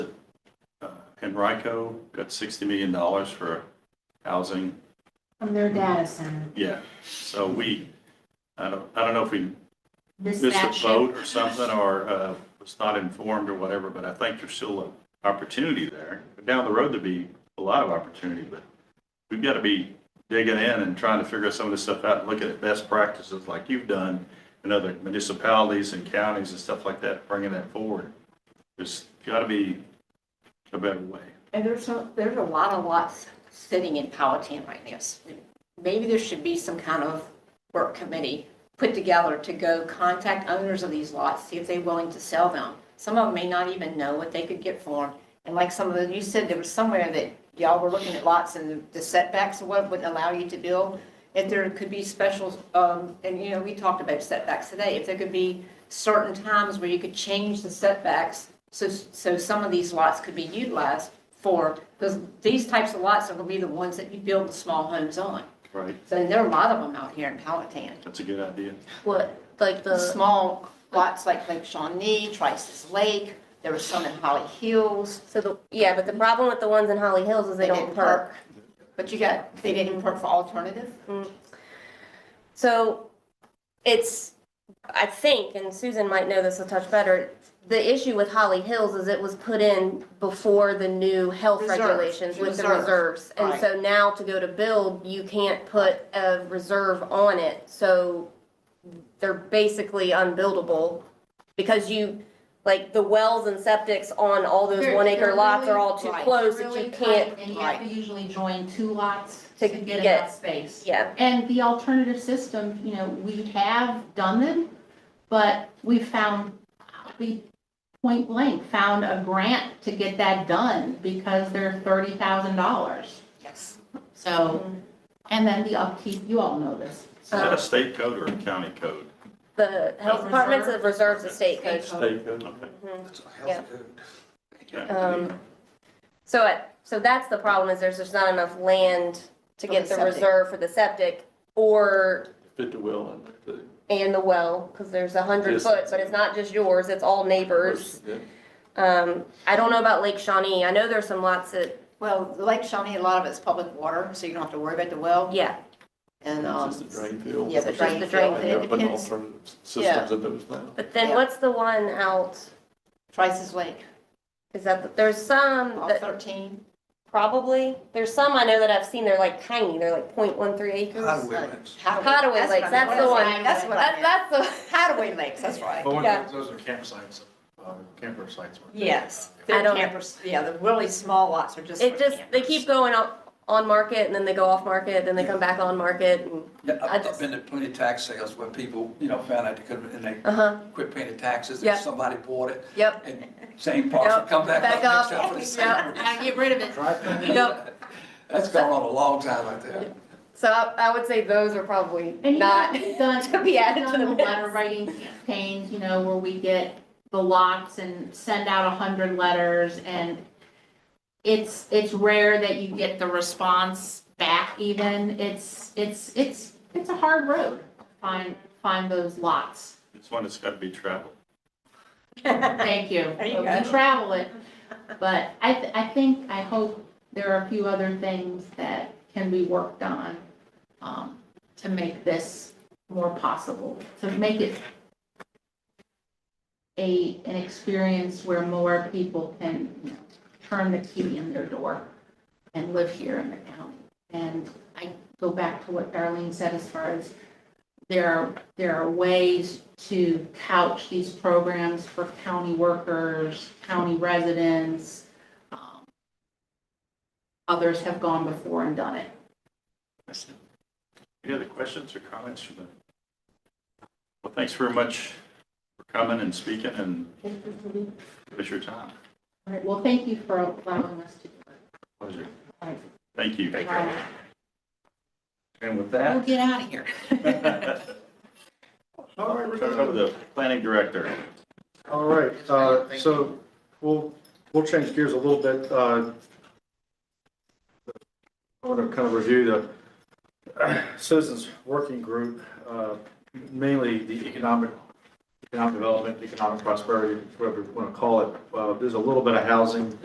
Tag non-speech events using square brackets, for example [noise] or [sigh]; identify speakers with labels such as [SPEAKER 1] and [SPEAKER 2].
[SPEAKER 1] Penrico got sixty million dollars for housing.
[SPEAKER 2] from their data center.
[SPEAKER 1] Yeah, so we, I don't, I don't know if we
[SPEAKER 2] Missed
[SPEAKER 1] missed
[SPEAKER 2] that
[SPEAKER 1] a
[SPEAKER 2] ship.
[SPEAKER 1] vote or something, or uh, was not informed or whatever, but I think there's still an opportunity there. Down the road, there'd be a lot of opportunity, but we've got to be digging in and trying to figure some of this stuff out, and looking at best practices like you've done in other municipalities and counties and stuff like that, bringing that forward. There's got to be a better way.
[SPEAKER 3] And there's, a- there's a lot of lots sitting in Powhatan right now. S- Maybe there should be some kind of work committee put together to go contact owners of these lots, see if they're willing to sell them. Some of them may not even know what they could get for them. And like some of the, you said there was somewhere that y'all were looking at lots and the setbacks or what wouldn't allow you to build. If there could be special, um, and you know, we talked about setbacks today, if there could be certain times where you could change the setbacks so, so some of these lots could be utilized for, because these types of lots are gonna be the ones that you build the small homes on.
[SPEAKER 1] Right.
[SPEAKER 3] So there are a lot of them out here in Powhatan.
[SPEAKER 1] That's a good idea.
[SPEAKER 4] What, like
[SPEAKER 3] The
[SPEAKER 4] the,
[SPEAKER 3] small lots like Lake Shawnee, Trice's Lake, there were some in Holly Hills.
[SPEAKER 4] so the, yeah, but the problem with the ones in Holly Hills is they don't
[SPEAKER 3] didn't
[SPEAKER 4] perk.
[SPEAKER 3] But you got, they didn't perk for alternative?
[SPEAKER 4] So it's, I think, and Susan might know this a touch better, the issue with Holly Hills is it was put in before the new health
[SPEAKER 3] Reserves.
[SPEAKER 4] regulations with the
[SPEAKER 3] Reserves.
[SPEAKER 4] reserves. And so now to go to build, you can't put a reserve on it, so they're basically unbuildable. Because you, like, the wells and septics on all those
[SPEAKER 5] They're-
[SPEAKER 4] one acre
[SPEAKER 5] they're
[SPEAKER 4] lots are
[SPEAKER 5] really-
[SPEAKER 4] all too
[SPEAKER 3] right,
[SPEAKER 4] close that
[SPEAKER 5] really
[SPEAKER 4] you can't,
[SPEAKER 5] tight, And you have to usually join two lots
[SPEAKER 4] To
[SPEAKER 5] to get
[SPEAKER 4] get-
[SPEAKER 5] enough space.
[SPEAKER 4] yeah.
[SPEAKER 5] And the alternative system, you know, we have done them, but we found, we point blank found a grant to get that done because they're thirty thousand dollars.
[SPEAKER 3] Yes.
[SPEAKER 5] So,
[SPEAKER 4] Mm-hmm.
[SPEAKER 5] and then the upkeep, you all know this.
[SPEAKER 1] Is that a state code or a county code?
[SPEAKER 4] The health
[SPEAKER 5] Reserve?
[SPEAKER 4] department's of reserves estate
[SPEAKER 5] State
[SPEAKER 4] coach.
[SPEAKER 5] code.
[SPEAKER 1] State code. Okay.
[SPEAKER 6] That's a
[SPEAKER 4] Yeah.
[SPEAKER 6] health code.
[SPEAKER 4] Um, So, it- so that's the problem is there's just not enough land to
[SPEAKER 3] For
[SPEAKER 4] get
[SPEAKER 3] the
[SPEAKER 4] the
[SPEAKER 3] septic.
[SPEAKER 4] reserve for the septic or,
[SPEAKER 7] Fit the will and the
[SPEAKER 4] and the well, because there's a hundred
[SPEAKER 7] Yes.
[SPEAKER 4] foot, but it's not just yours, it's all neighbors.
[SPEAKER 7] person, yeah.
[SPEAKER 4] Um, I don't know about Lake Shawnee. I know there's some lots that,
[SPEAKER 3] Well, Lake Shawnee, a lot of it's public water, so you don't have to worry about the well
[SPEAKER 4] yeah,
[SPEAKER 3] and,
[SPEAKER 7] It's
[SPEAKER 3] um,
[SPEAKER 7] just a drain field.
[SPEAKER 3] yeah, the drain
[SPEAKER 4] the drain
[SPEAKER 3] field.
[SPEAKER 7] And
[SPEAKER 3] It
[SPEAKER 7] there have been
[SPEAKER 3] depends.
[SPEAKER 7] alternative systems in those now.
[SPEAKER 4] but then
[SPEAKER 3] Yeah.
[SPEAKER 4] what's the one out?
[SPEAKER 3] Trice's Lake,
[SPEAKER 4] Is that, there's some
[SPEAKER 3] all
[SPEAKER 4] that
[SPEAKER 3] thirteen.
[SPEAKER 4] probably, there's some I know that I've seen, they're like tiny, they're like point one three acres.
[SPEAKER 6] Highway limits.
[SPEAKER 4] Hadaway
[SPEAKER 3] what
[SPEAKER 4] Lakes,
[SPEAKER 3] I
[SPEAKER 4] that's
[SPEAKER 3] meant.
[SPEAKER 4] the one.
[SPEAKER 3] That's what I
[SPEAKER 4] That,
[SPEAKER 3] meant.
[SPEAKER 4] that's the,
[SPEAKER 3] Hadaway Lakes, that's right.
[SPEAKER 6] But
[SPEAKER 4] Yeah.
[SPEAKER 6] those are campsites, uh, camper sites. weren't they?
[SPEAKER 3] Yes.
[SPEAKER 4] I
[SPEAKER 3] They're
[SPEAKER 4] don't-
[SPEAKER 3] campers, yeah, the really small lots are just.
[SPEAKER 4] it
[SPEAKER 3] for
[SPEAKER 4] just, they
[SPEAKER 3] campers.
[SPEAKER 4] keep going up on market and then they go off market, then they come back on market and,
[SPEAKER 6] Yeah,
[SPEAKER 4] I
[SPEAKER 6] I've- I've
[SPEAKER 4] just-
[SPEAKER 6] been to plenty of tax sales where people, you know, found out they couldn't, and they
[SPEAKER 4] uh-huh,
[SPEAKER 6] quit paying the taxes,
[SPEAKER 4] Yeah.
[SPEAKER 6] and somebody bought it, [laughs]
[SPEAKER 4] yep,
[SPEAKER 6] and same parcel,
[SPEAKER 4] Yep.
[SPEAKER 6] come back
[SPEAKER 4] back up,
[SPEAKER 6] up, next
[SPEAKER 4] [laughs]
[SPEAKER 6] up for the
[SPEAKER 4] yep,
[SPEAKER 6] same.
[SPEAKER 4] I get rid of it. Yep.
[SPEAKER 6] That's gone on a long time out there.
[SPEAKER 4] So I, I would say those are probably
[SPEAKER 5] And you
[SPEAKER 4] not,
[SPEAKER 5] know, we've done-
[SPEAKER 4] [laughs] to be added to
[SPEAKER 5] we've done
[SPEAKER 4] the
[SPEAKER 5] Letter
[SPEAKER 4] list.
[SPEAKER 5] writing campaigns, you know, where we get the lots and send out a hundred letters and it's, it's rare that you get the response back even. It's, it's, it's, it's a hard road, to find, find those lots.
[SPEAKER 1] It's one that's got to be traveled.
[SPEAKER 5] [laughs] Thank you.
[SPEAKER 3] There you
[SPEAKER 5] We
[SPEAKER 3] go.
[SPEAKER 5] travel it, but I, th- I think, I hope there are a few other things that can be worked on um, to make this more possible, to make it a, an experience where more people can, you know, turn the key in their door and live here in the county. And I go back to what Darlene said as far as there are, there are ways to couch these programs for county workers, county residents. Um, Others have gone before and done it.
[SPEAKER 1] Any other questions or comments from the? Well, thanks very much for coming and speaking and give us your time.
[SPEAKER 5] All right, well, thank you for allowing us to do it.
[SPEAKER 1] Pleasure.
[SPEAKER 5] All right.
[SPEAKER 1] Thank you.
[SPEAKER 5] Bye.
[SPEAKER 1] And with
[SPEAKER 3] We'll
[SPEAKER 1] that.
[SPEAKER 3] get out of here.
[SPEAKER 5] [laughs]
[SPEAKER 1] [laughs] Turn it over to the planning director.
[SPEAKER 8] All right, uh, so we'll, we'll change gears a little bit. uh, I want to kind of review the [clears throat] Citizens Working Group, uh, mainly the economic, economic development, economic prosperity, whatever you want to call it. Uh, There's a little bit of housing